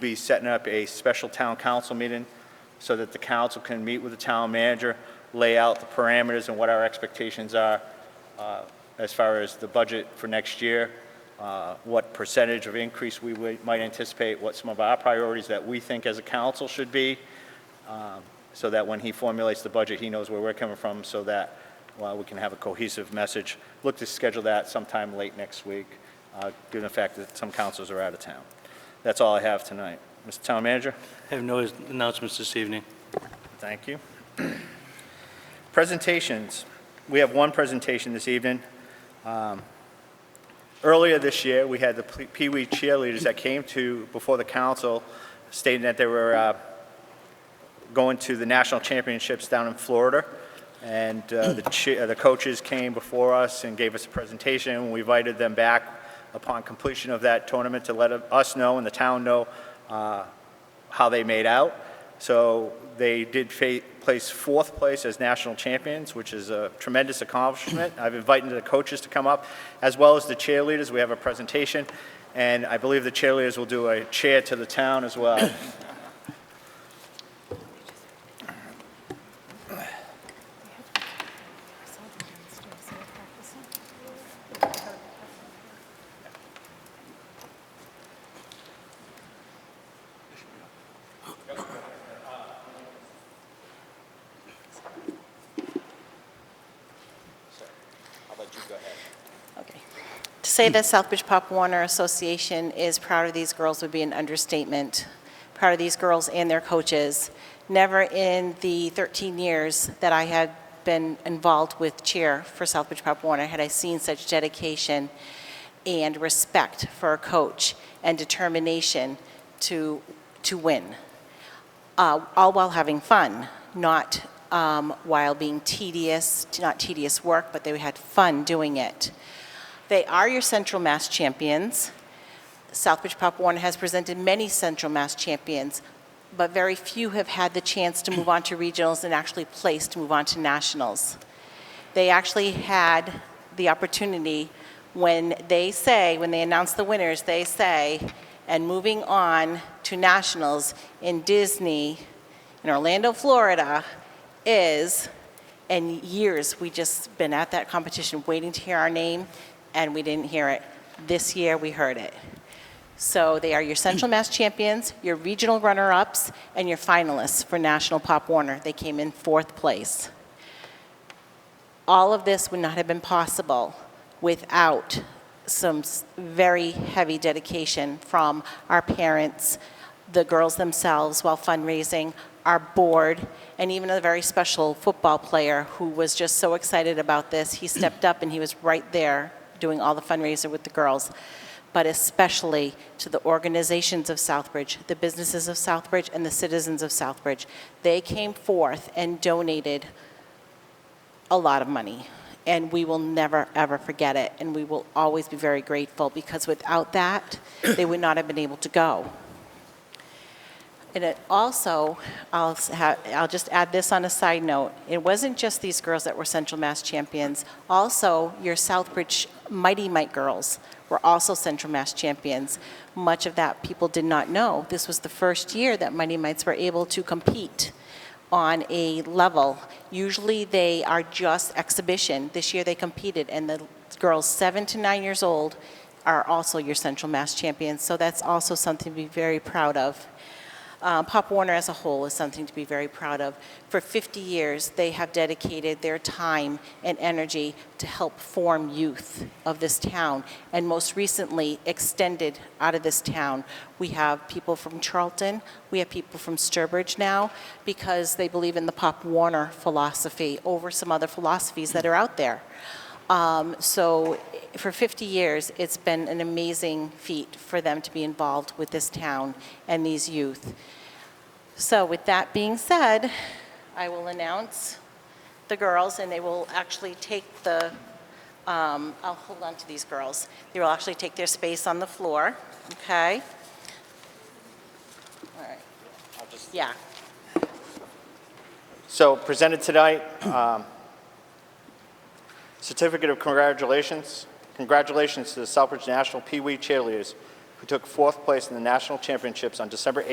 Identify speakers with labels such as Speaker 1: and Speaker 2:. Speaker 1: be setting up a special town council meeting so that the council can meet with the town manager, lay out the parameters and what our expectations are uh, as far as the budget for next year, uh, what percentage of increase we would- might anticipate, what some of our priorities that we think as a council should be, um, so that when he formulates the budget, he knows where we're coming from, so that well, we can have a cohesive message. Look to schedule that sometime late next week, uh, given the fact that some councils are out of town. That's all I have tonight. Mr. Town Manager?
Speaker 2: I have no announcements this evening.
Speaker 1: Thank you. Presentations. We have one presentation this evening. Um, Earlier this year, we had the P- Pee Wee cheerleaders that came to, before the council, stating that they were uh, going to the national championships down in Florida. And uh, the che- uh, the coaches came before us and gave us a presentation, and we invited them back upon completion of that tournament to let us know and the town know uh, how they made out. So they did fa- place fourth place as national champions, which is a tremendous accomplishment. I've invited the coaches to come up, as well as the cheerleaders. We have a presentation, and I believe the cheerleaders will do a cheer to the town as well.
Speaker 3: Okay. To say that Southbridge Pop Warner Association is proud of these girls would be an understatement. Proud of these girls and their coaches. Never in the 13 years that I had been involved with cheer for Southbridge Pop Warner had I seen such dedication and respect for a coach and determination to, to win uh, all while having fun, not um, while being tedious, not tedious work, but they had fun doing it. They are your Central Mass champions. Southbridge Pop Warner has presented many Central Mass champions, but very few have had the chance to move on to regionals and actually place to move on to nationals. They actually had the opportunity when they say, when they announce the winners, they say, and moving on to nationals in Disney, in Orlando, Florida, is, and years, we just been at that competition waiting to hear our name, and we didn't hear it. This year, we heard it. So they are your Central Mass champions, your regional runner-ups, and your finalists for National Pop Warner. They came in fourth place. All of this would not have been possible without some s- very heavy dedication from our parents, the girls themselves while fundraising, our board, and even a very special football player who was just so excited about this. He stepped up and he was right there doing all the fundraiser with the girls. But especially to the organizations of Southbridge, the businesses of Southbridge, and the citizens of Southbridge. They came forth and donated a lot of money. And we will never, ever forget it. And we will always be very grateful because without that, they would not have been able to go. And it also, I'll, s- ha- I'll just add this on a side note. It wasn't just these girls that were Central Mass champions. Also, your Southbridge Mighty Mike girls were also Central Mass champions. Much of that people did not know. This was the first year that Mighty Mites were able to compete on a level. Usually, they are just exhibition. This year, they competed, and the girls seven to nine years old are also your Central Mass champions. So that's also something to be very proud of. Uh, Pop Warner as a whole is something to be very proud of. For 50 years, they have dedicated their time and energy to help form youth of this town, and most recently, extended out of this town. We have people from Charlton, we have people from Sturbridge now, because they believe in the Pop Warner philosophy over some other philosophies that are out there. Um, So i- for 50 years, it's been an amazing feat for them to be involved with this town and these youth. So with that being said, I will announce the girls, and they will actually take the, um, I'll hold on to these girls. They will actually take their space on the floor, okay? All right. Yeah.
Speaker 1: So presented tonight, um, certificate of congratulations. Congratulations to the Southbridge National Pee Wee Cheerleaders who took fourth place in the national championships on December